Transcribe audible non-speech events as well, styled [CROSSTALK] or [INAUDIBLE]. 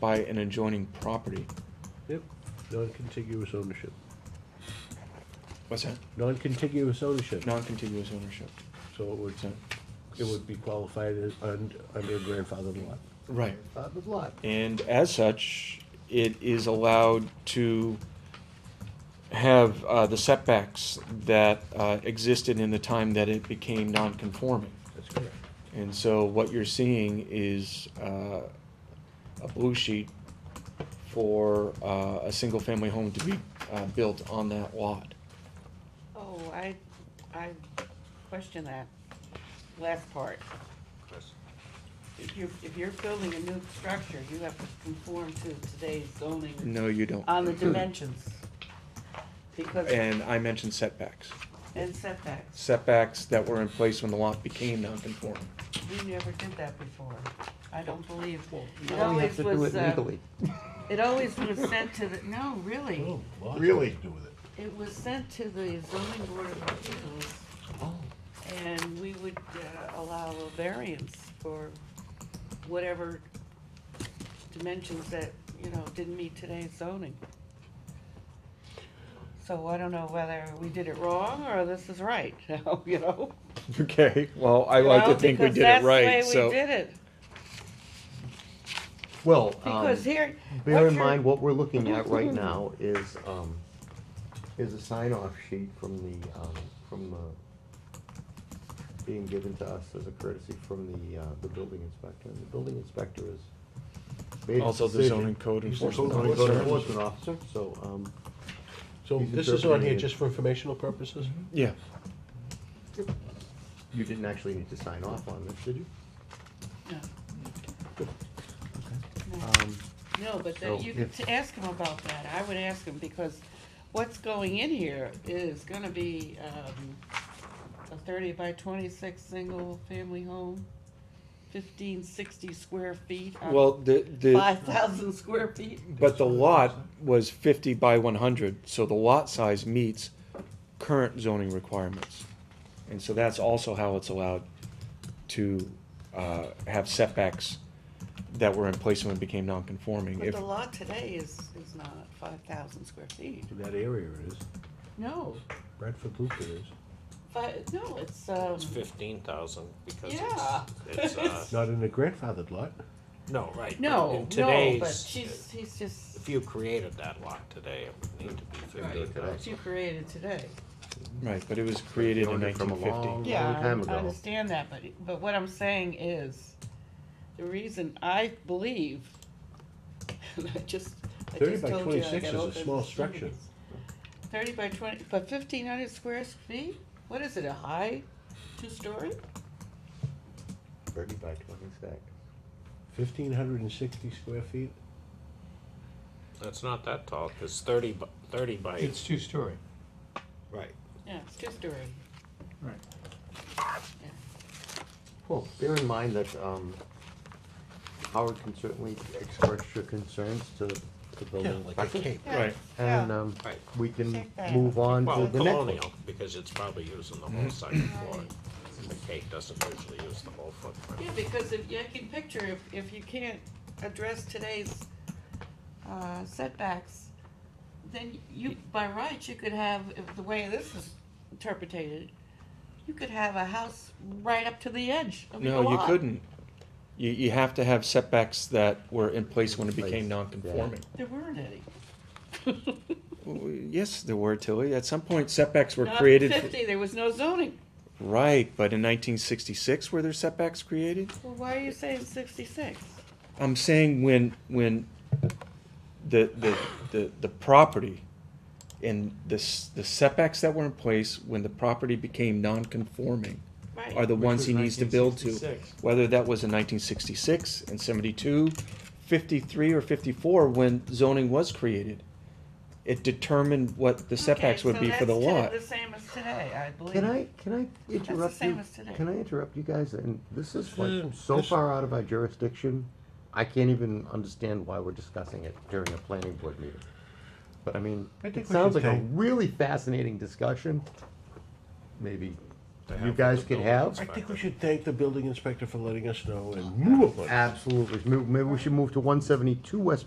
by an adjoining property. Yep, non-contiguous ownership. What's that? Non-contiguous ownership, Non-contiguous ownership. so it would, So- it would be qualified as un- under a grandfathered lot. Right. Grandfathered lot. And as such, it is allowed to have uh, the setbacks that uh, existed in the time that it became non-conforming. That's correct. And so what you're seeing is uh, a blue sheet for uh, a single-family home to be uh, built on that lot. Oh, I, I question that last part. If you're, if you're building a new structure, you have to conform to today's zoning No, you don't. on the dimensions. Because, And I mentioned setbacks. and setbacks, Setbacks that were in place when the lot became non-conforming. we never did that before. I don't believe. It Now we have always to do was, it uh, legally. it always was sent to the, no, really, Really? it was sent to the zoning board of appeals. Oh. And we would uh, allow a variance for whatever dimensions that, you know, didn't meet today's zoning. So I don't know whether we did it wrong or this is right, [LAUGHS] you know? [LAUGHS] Okay, well, I You like to know, think we because did it that's the right, way so. we did it. Well, um, Because here. bear what in you're- mind, what we're looking at [LAUGHS] right now is, um, is a sign-off sheet from the, um, from the, being given to us as a courtesy from the, uh, the building inspector. And the building inspector is made his Also the decision. zoning code He's the enforcement code Zoning code officer. enforcement officer, so, um, So He's this is on interpreting here it. just for informational purposes? Yeah, you didn't actually need to sign off on this, did you? No. No. Um, No, but So then you could if- t- ask him about that. I would ask him because what's going in here is gonna be, um, a thirty by twenty-six single-family home, fifteen sixty square feet. well, the, the, Oh. Five thousand square feet. but the lot was fifty by one hundred, so the lot size meets current zoning requirements. And so that's also how it's allowed to, uh, have setbacks that were in place when it became non-conforming. But If, the lot today is, is not five thousand square feet. In that area it is. No, Bradford Loop it is. fi- no, it's, um, It's fifteen thousand because Yeah. it's, it's uh, Not in a grandfathered lot. no right. [LAUGHS] but no, in no, today's, but she's, he's just, if you created that lot today, it would need to be fifteen what thousand. you created today. right, but it was created in Owned it from a nineteen fifty. long- Yeah, long time I ago. understand that, but, but what I'm saying is, the reason I believe, [LAUGHS] I just, I 30 just by told you I 26 got is a all kinds small of structure. things. Thirty by twenty, but fifteen hundred square feet? What is it, a high two-story? Thirty by twenty-six. Fifteen hundred and sixty square feet? That's not that tall, 'cause thirty by, thirty by. It's two story. Right. Yeah, it's two-story. Well, bear in mind that um, Howard can certainly express your concerns to the building inspector. Right. And um, Right. we can Check that. move on Well, to the next one. colonial, because it's probably using the whole second floor. The Cape doesn't usually use the whole footprint. Yeah, because if, you can picture, if, if you can't address today's, uh, setbacks, then you, by rights, you could have, if the way this is interpreted, you could have a house right up to the edge of your No, you lot. couldn't. You, you have to have setbacks that were in place when it In place, became yeah. non-conforming. There weren't any. Well, Yes, there were, Tilly. At some point setbacks were Not created. for- Fifty, there was no zoning. Right, but in nineteen sixty-six were there setbacks created? Well, why are you saying sixty-six? I'm saying when, when the, the, the, the property and the, s- the setbacks that were in place when the property became non-conforming Right. are the ones he needs to build to. Whether that was in nineteen sixty-six and 72, 53, or fifty-four, when zoning was created. It determined what the setbacks Okay, would so be for the that's lot. to- The same as today, I believe. Can I, can I the interrupt same you? as today. Can I interrupt you guys? And this is Uh, like so this- far out of our jurisdiction, I can't even understand why we're discussing it during a planning board meeting. But I mean, I think it we sounds should like a take- really fascinating discussion. Maybe to have. You with guys the could building have- I inspector. think we should thank the building inspector for letting us know and move upon it. Absolutely. Maybe we should move to one seventy-two West